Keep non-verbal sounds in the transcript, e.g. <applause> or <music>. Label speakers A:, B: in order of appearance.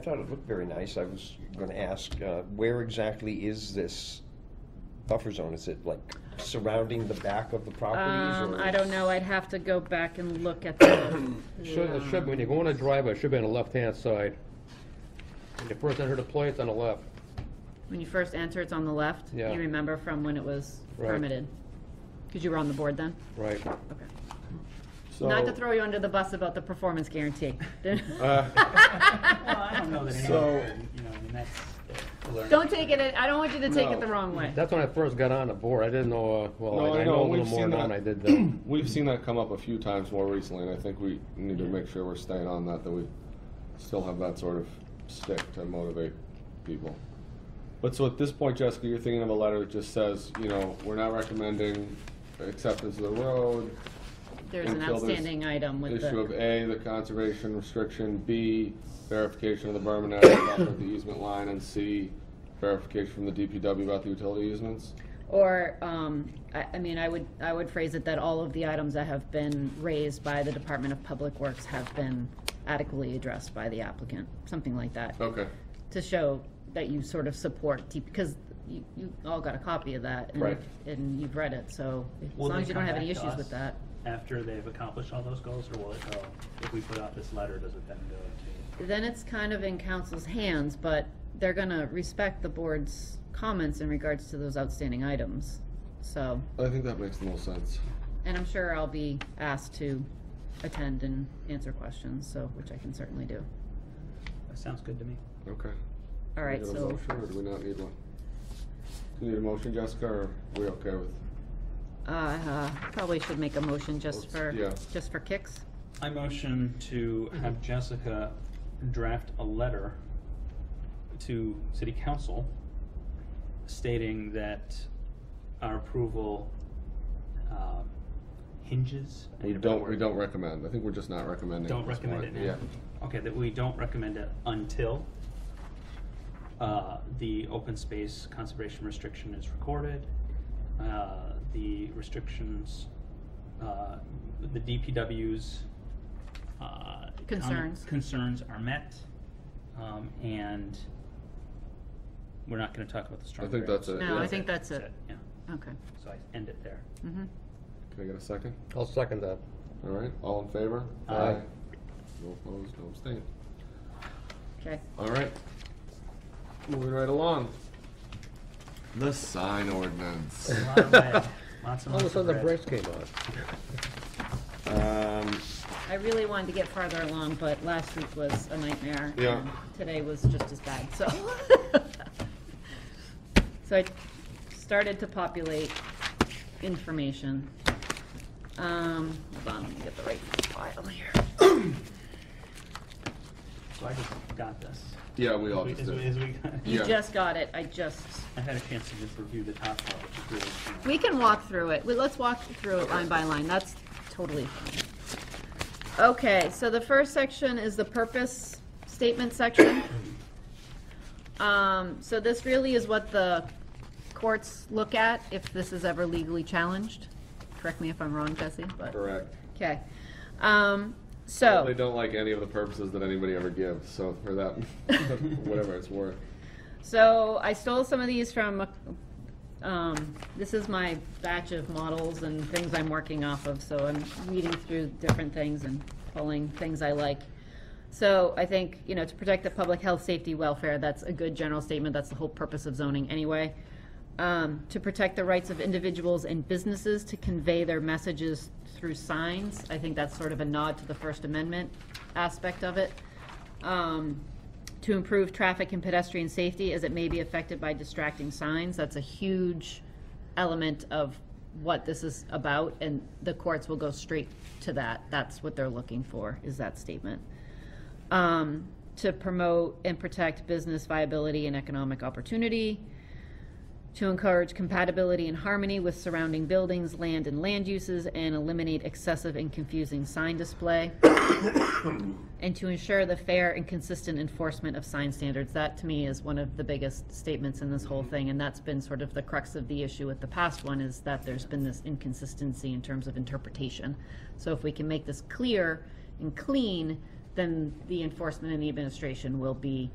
A: I thought it looked very nice. I was going to ask, uh, where exactly is this buffer zone? Is it like surrounding the back of the properties?
B: Um,
A: or-
B: I don't know, I'd have to go back and look at
C: <coughs>
B: the,
D: Should, it should, when you go on a driveway, it should be on the left-hand side. When you first enter the place, on the left.
B: when you first enter, it's on the left.
D: Yeah.
B: You remember from when it was
D: Right.
B: permitted? Because you were on the board then?
D: Right.
B: Okay. Not to throw you under the bus about the performance
C: <laughs>
B: guarantee.
D: Oh,
C: Uh,
E: Well, I don't know that
C: So-
E: anyone, you know, I mean, that's a
B: <laughs>
E: learning.
B: Don't take it, I don't want you to take it
C: No.
B: the wrong way.
D: That's when I first got on the board. I didn't know, uh,
C: No,
D: well, I-
C: I
D: I know a
C: know,
D: little
C: we've
D: more
C: seen
D: now
C: that.
D: than I did then.
C: <clears throat> We've seen that come up a few times more recently, and I think we need to make sure we're staying on that, that we still have that sort of stick to motivate people. But so at this point, Jessica, you're thinking of a letter that just says, you know, we're not recommending acceptance of the road,
B: There's an
C: until there's
B: outstanding item with
C: issue of
B: the,
C: A, the conservation restriction, B, verification of the berm and area buffer at the easement line, and C, verification from the DPW about the utility easements.
B: or, um, I, I mean, I would, I would phrase it that all of the items that have been raised by the Department of Public Works have been adequately addressed by the applicant, something like that.
C: Okay,
B: to show that you sort of support, T- because you, you all got a copy of that. and-
C: Right.
B: And you've read it, so as
E: Will
B: long
E: they
B: as you don't
E: come
B: have any
E: back to
B: issues with
E: us
B: that.
E: After they've accomplished all those goals, or will it go, if we put out this letter, does it then go
B: Then it's kind of in council's hands, but they're gonna respect the board's comments in regards to those outstanding items. So,
C: I think that makes the most sense.
B: and I'm sure I'll be asked to attend and answer questions, so, which I can certainly do.
E: to, that sounds good to me.
C: Okay.
B: All right,
C: Do we need a
B: so,
C: motion, or do we not need one? Do you need a motion, Jessica, or are we okay with?
B: uh, uh, probably should make a motion just
C: Oops,
B: for,
C: yeah.
B: just for kicks.
E: I motion to have Jessica draft a letter to city council stating that our approval um, hinges. I
C: We
E: need a better
C: don't, we
E: word.
C: don't recommend, I think we're just not recommending.
E: Don't
C: at this
E: recommend it
C: point.
E: now. Okay, that we don't recommend it until uh, the open space conservation restriction is recorded. uh, The restrictions, uh, the DPW's. uh, com-
B: Concerns.
E: Concerns are met, um, and we're not gonna talk about the storm.
C: I think
E: drain.
C: that's it.
B: No,
C: yeah.
B: I think that's it.
E: Yeah,
B: Okay.
E: so I end it there.
B: Mm-hmm.
C: Can I get a second?
D: I'll second that.
C: All right, all in favor?
E: Aye.
C: No opposed, no abstained.
B: Okay.
C: All right. Moving right along. The sign ordinance.
E: A
D: <laughs>
E: lot of red, Lots and
D: All of a
E: lots of
D: sudden, the
E: red.
D: brakes came on.
A: <laughs> Um,
B: I really wanted to get farther along, but last week was a nightmare.
C: Yeah.
B: and Today was just as bad, so. <laughs> So I started to populate information. Um, hold on, let me get the right file here.
E: So I just got this.
C: Yeah, we all
E: As
C: just
E: we-
C: did.
E: as we got-
B: You
C: Yeah.
B: just got it, I just,
E: <laughs> I had a chance to just review the top part, which is really. you know,
B: we can walk through it. Well, Let's walk through it line by line, that's totally fine. Okay, so the first section is the purpose statement section. Um, so this really is what the courts look at if this is ever legally challenged. Correct me if I'm wrong, Jesse, but,
C: Correct.
B: okay. Um,
C: They
B: so,
C: don't like any of the purposes that anybody ever gives, so for that, <laughs> whatever it's worth.
B: so I stole some of these from, um, this is my batch of models and things I'm working off of, so I'm reading through different things and pulling things I like. So I think, you know, to protect the public health, safety, welfare, that's a good general statement. That's the whole purpose of zoning anyway. Um, to protect the rights of individuals and businesses to convey their messages through signs. I think that's sort of a nod to the First Amendment aspect of it. Um, to improve traffic and pedestrian safety as it may be affected by distracting signs. That's a huge element of what this is about, and the courts will go straight to that. That's what they're looking for, is that statement um, to promote and protect business viability and economic opportunity, to encourage compatibility and harmony with surrounding buildings, land, and land uses, and eliminate excessive and confusing sign display, and to ensure the fair and consistent enforcement of sign standards. That, to me, is one of the biggest statements in this whole thing, and that's been sort of the crux of the issue with the past one, is that there's been this inconsistency in terms of interpretation. So if we can make this clear and clean, then the enforcement and the administration will be